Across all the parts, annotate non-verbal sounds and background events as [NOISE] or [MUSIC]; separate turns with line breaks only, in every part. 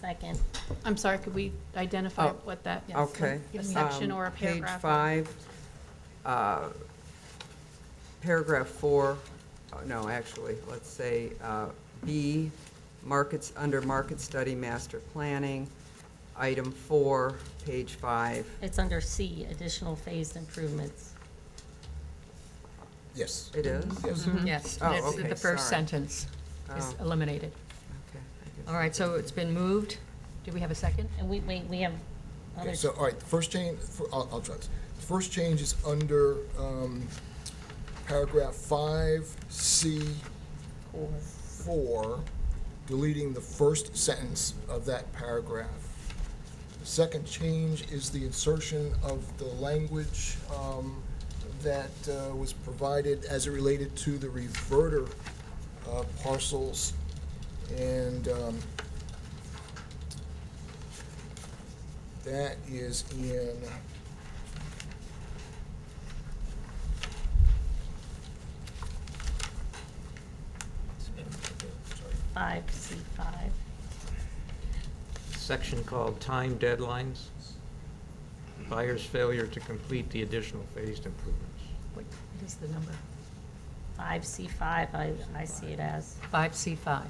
Second.
I'm sorry, could we identify
Oh,
what that?
yes,
Okay.
A section
Um,
or a paragraph?
Page five, uh, paragraph four, oh, no, actually, let's say uh, B, markets, under market study master planning, item four, page five.
It's under C, additional phased improvements.
Yes. Mm-hmm.
It is?
Yes.
Yes,
Oh,
that's
okay,
the first
sorry.
sentence is
Oh,
eliminated.
okay, I guess-
All right, so it's been moved. Do we have a second?
And we, we, we have
Okay,
other,
so, all right, the first change, fir- I'll, I'll try this. The first change is under um, paragraph five, C, four, deleting the first sentence of that paragraph. The Second change is the insertion of the language um, that uh, was provided as it related to the reverter uh, parcels. And um, that is in
five, C five.
section called Time Deadlines, Buyer's Failure to Complete the Additional Phased Improvements.
What what is the number?
Five, C five, I, I see it as.
5C5.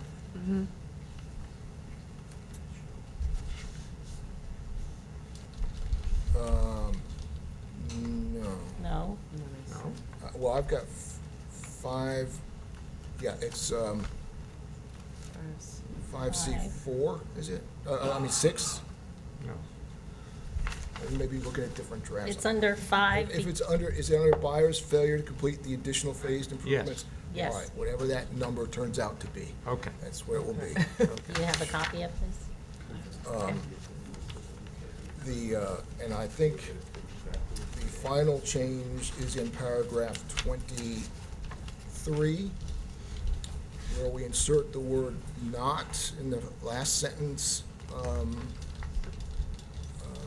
Um, no.
No?
No?
Uh, Well, I've got f- five, yeah, it's, um, five C four, is it? Uh, Uh, I mean, six?
No.
Maybe looking at different drafts.
It's under five,
If
be-
it's under, is it under buyer's failure to complete the additional phased improvements?
Yes.
All right, whatever that number turns out to be,
Okay.
that's what it will
[LAUGHS]
be.
do you have a copy of this?
The, uh, and I think the final change is in paragraph 23, where we insert the word "not" in the last sentence, um, uh,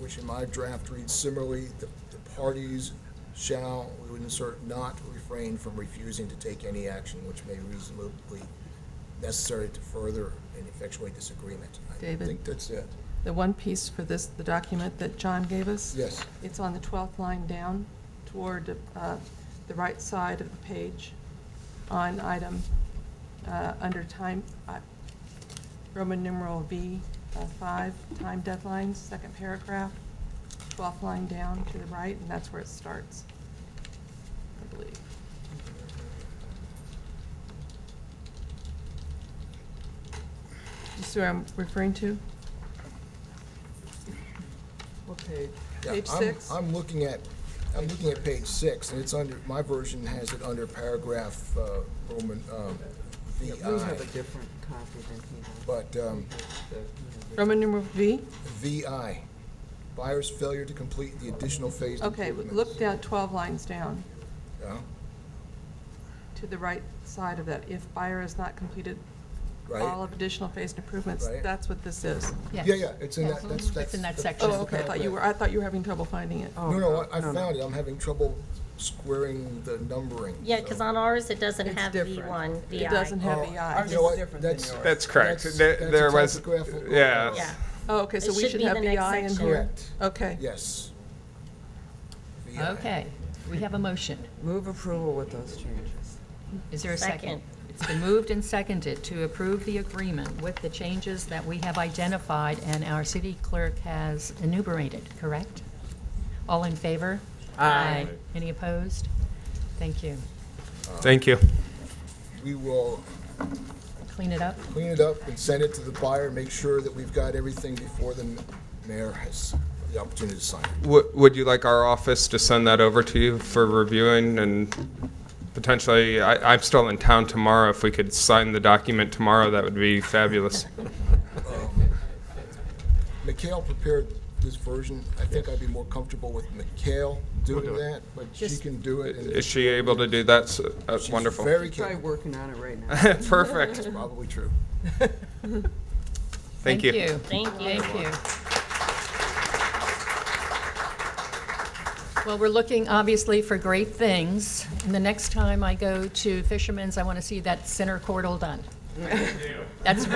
which in my draft reads similarly, "The the parties shall," we would insert "not refrain from refusing to take any action which may reasonably necessary to further and effectuate this agreement." I
David?
think that's it.
The one piece for this, the document that John gave us?
Yes.
It's on the 12th line down toward uh, the right side of the page on item, uh, under time, uh, Roman numeral V, uh, 5, time deadlines, second paragraph, 12th line down to the right, and that's where it starts, I believe. You see what I'm referring to?
What page?
Yeah,
Page
I'm-
six?
I'm looking at, I'm looking at page six, and it's under, my version has it under paragraph uh, Roman um,
Yeah, We have a
VI.
different copy than he has.
But um,
Roman numeral V?
VI, buyer's failure to complete the additional phase
Okay,
improvements.
look down, 12 lines down,
Yeah,
to the right side of that. If buyer has not completed all
Right?
of additional phased improvements,
Right.
that's what this is.
Yeah, yeah, it's in that, that's, that's.
It's in that
that's
section.
Oh,
the
okay, I thought you were,
paragraph.
I thought you were having trouble finding it.
Oh,
No, no, I I
no, no.
found it, I'm having trouble squaring the numbering.
Yeah, because
so-
on ours, it doesn't
It's
have V
different.
one, VI.
It doesn't have
Oh,
the
you
I.
Ours
know
is
what?
different than
That's-
yours.
That's correct.
That's-
There,
that's a
there was,
typographical
yeah.
error.
Yeah,
Oh, okay, so
It
we
should
should
be
have
the
the
next
I in
section.
here.
Correct,
Okay.
yes. VI.
Okay, we have a motion.
Move approval with those changes.
Is there a second?
Second.
It's been moved and seconded to approve the agreement with the changes that we have identified and our city clerk has enumerated, correct? All in favor? Aye. Any opposed? Thank you.
Thank you.
We will
Clean it up?
clean it up and send it to the buyer, make sure that we've got everything before the mayor has the opportunity to sign it.
Would, would you like our office to send that over to you for reviewing and potentially, I, I'm still in town tomorrow. If we could sign the document tomorrow, that would be fabulous.
Mikhail prepared this version. I think I'd be more comfortable with Mikhail doing that, but she can do it. and
Is she able to do that? So- uh,
she's
Wonderful.
Very
Try
capable,
working on it right now.
Perfect.
probably true.
Thank you.
thank you.
Thank you. Well, we're looking obviously for great things. And the next time I go to Fisherman's, I want to see that center cordal done. That's